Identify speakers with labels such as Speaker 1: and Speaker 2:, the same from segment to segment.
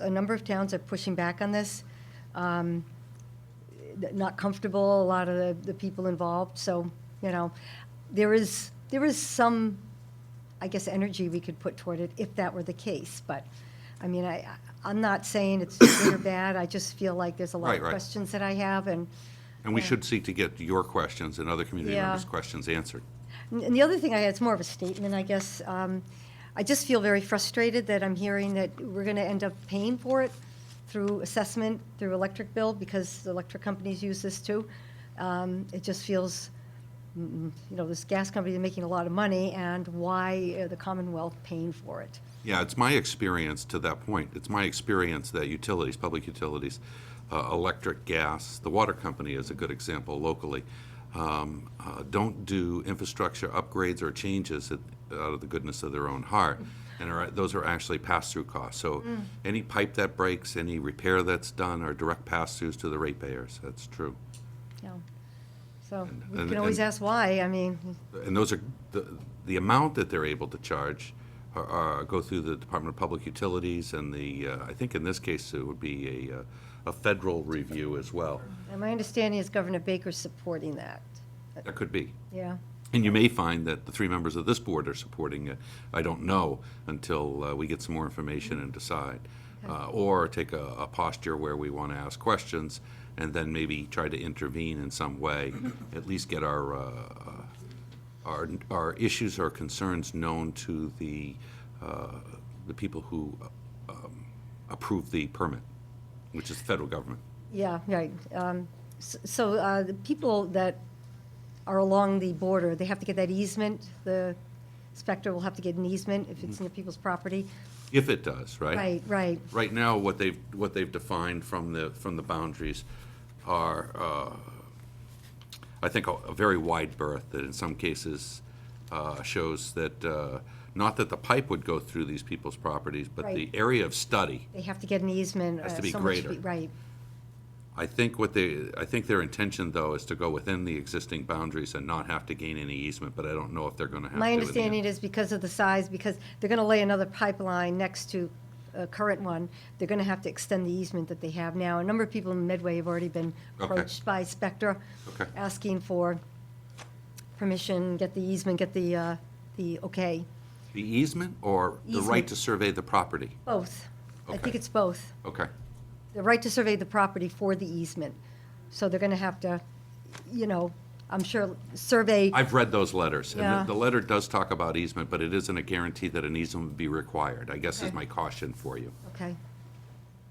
Speaker 1: a number of towns are pushing back on this. Um, Not comfortable, a lot of the, the people involved, so, you know, there is, there is some, I guess, energy we could put toward it if that were the case, but, I mean, I, I- I'm not saying it's good or bad, I just feel like there's a lot
Speaker 2: Right,
Speaker 1: of
Speaker 2: right.
Speaker 1: questions that I have, and,
Speaker 2: And we should seek to get your questions and other community
Speaker 1: Yeah.
Speaker 2: members' questions answered.
Speaker 1: And the other thing I had, it's more of a statement, I guess. um, I just feel very frustrated that I'm hearing that we're going to end up paying for it through assessment, through electric bill, because the electric companies use this too. Um, It just feels, mm, you know, this gas company is making a lot of money, and why are the Commonwealth paying for it?
Speaker 2: Yeah, it's my experience to that point. It's my experience that utilities, public utilities, uh, electric, gas, the water company is a good example locally, um, uh, don't do infrastructure upgrades or changes at- out of the goodness of their own heart. And are, those are actually pass-through costs. So any pipe that breaks, any repair that's done are direct pass-throughs to the ratepayers. That's true.
Speaker 1: you know? So we
Speaker 2: and-
Speaker 1: can always
Speaker 2: and-
Speaker 1: ask why, I mean,
Speaker 2: and those are, the, the amount that they're able to charge are, are, go through the Department of Public Utilities and the, uh, I think in this case, it would be a, uh, a federal review as well.
Speaker 1: and my understanding is Governor Baker's supporting that,
Speaker 2: That could be.
Speaker 1: yeah.
Speaker 2: And you may find that the three members of this board are supporting it. I don't know until uh, we get some more information and decide. Uh, Or take a a posture where we want to ask questions and then maybe try to intervene in some way, at least get our, uh, our, our issues or concerns known to the, uh, the people who um, approve the permit, which is the federal government.
Speaker 1: Yeah, right. Um, s- So uh, the people that are along the border, they have to get that easement, the inspector will have to get an easement if it's near people's property.
Speaker 2: If it does, Mm-hmm. right?
Speaker 1: Right, right,
Speaker 2: Right now, what they've, what they've defined from the, from the boundaries are, uh, I think, a a very wide berth that in some cases uh, shows that, uh, not that the pipe would go through these people's properties, but the
Speaker 1: Right.
Speaker 2: area of study.
Speaker 1: they have to get an easement.
Speaker 2: Has to
Speaker 1: uh,
Speaker 2: be
Speaker 1: so much
Speaker 2: greater.
Speaker 1: feet- Right,
Speaker 2: I think what they, I think their intention, though, is to go within the existing boundaries and not have to gain any easement, but I don't know if they're going to have to.
Speaker 1: My
Speaker 2: in the end.
Speaker 1: understanding is because of the size, because they're going to lay another pipeline next to a current one, they're going to have to extend the easement that they have now. A number of people in Medway have already been
Speaker 2: Okay.
Speaker 1: approached by Spectra,
Speaker 2: Okay.
Speaker 1: asking for permission, get the easement, get the, uh, the okay,
Speaker 2: The easement or the right
Speaker 1: Easement.
Speaker 2: to survey the property?
Speaker 1: both. I think
Speaker 2: Okay.
Speaker 1: it's both.
Speaker 2: Okay,
Speaker 1: The right to survey the property for the easement. So they're going to have to, you know, I'm sure, survey,
Speaker 2: I've read those letters, and
Speaker 1: Yeah.
Speaker 2: the- the letter does talk about easement, but it isn't a guarantee that an easement would be required, I guess is
Speaker 1: Okay.
Speaker 2: my caution for you.
Speaker 1: okay.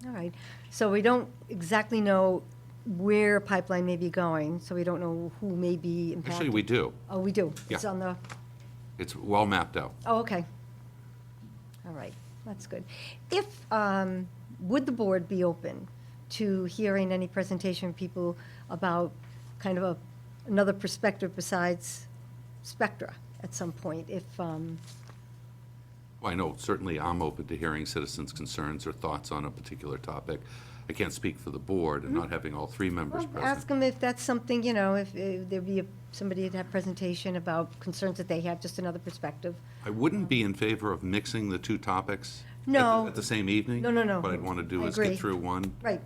Speaker 1: All right. So we don't exactly know where pipeline may be going, so we don't know who may be impacted.
Speaker 2: Actually, we do.
Speaker 1: Oh, we do. It's
Speaker 2: Yeah.
Speaker 1: on the,
Speaker 2: It's well mapped out.
Speaker 1: oh, okay. All right, that's good. If, um, would the board be open to hearing any presentation from people about kind of a, another perspective besides Spectra at some point, if, um,
Speaker 2: Well, I know certainly I'm open to hearing citizens' concerns or thoughts on a particular topic. I can't speak for the board and not having all three members
Speaker 1: Mm-hmm. Well, Ask
Speaker 2: present.
Speaker 1: them if that's something, you know, if if there'd be a- somebody to have presentation about concerns that they have, just another perspective.
Speaker 2: I wouldn't be in favor of mixing the two topics at the-
Speaker 1: No.
Speaker 2: at the same evening.
Speaker 1: No, no, no.
Speaker 2: What I'd want to do
Speaker 1: I
Speaker 2: is
Speaker 1: agree.
Speaker 2: get through one,
Speaker 1: Right,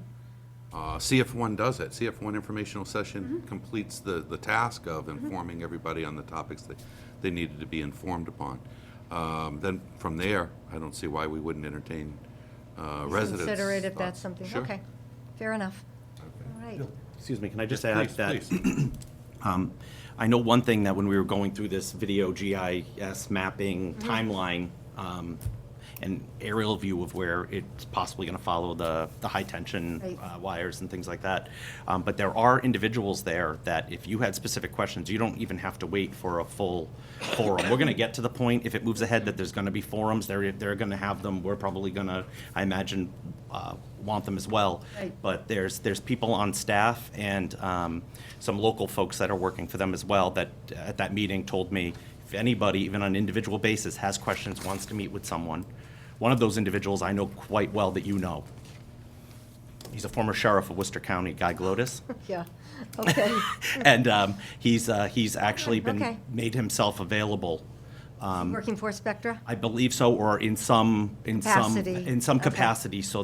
Speaker 2: uh, see if one does it, see if one informational session
Speaker 1: Mm-hmm.
Speaker 2: completes the, the task of informing everybody on the topics that they needed to be informed upon. Um, Then, from there, I don't see why we wouldn't entertain uh, residents'
Speaker 1: consider it if
Speaker 2: thoughts.
Speaker 1: that's something,
Speaker 2: Sure.
Speaker 1: okay, fair enough. All right,
Speaker 3: Excuse me, can I just add
Speaker 2: Please,
Speaker 3: that?
Speaker 2: please.
Speaker 3: I know one thing that when we were going through this video GIS mapping timeline, um, an aerial view of where it's possibly going to follow the, the high-tension
Speaker 1: Right.
Speaker 3: uh, wires and things like that. Um, But there are individuals there that if you had specific questions, you don't even have to wait for a full forum. We're going to get to the point, if it moves ahead, that there's going to be forums, they're, they're going to have them. We're probably going to, I imagine, uh, want them as well.
Speaker 1: Right.
Speaker 3: But there's, there's people on staff and um, some local folks that are working for them as well that, uh, at that meeting, told me, if anybody, even on an individual basis, has questions, wants to meet with someone, one of those individuals I know quite well that you know. He's a former sheriff of Worcester County, Guy Glotis.
Speaker 1: yeah, okay,
Speaker 3: And um, he's, uh, he's actually
Speaker 1: Okay.
Speaker 3: been, made himself available
Speaker 2: Um,
Speaker 1: working for Spectra?
Speaker 3: I believe so, or in some, in some,
Speaker 1: Capacity.
Speaker 3: in some
Speaker 1: Okay.
Speaker 3: capacity, so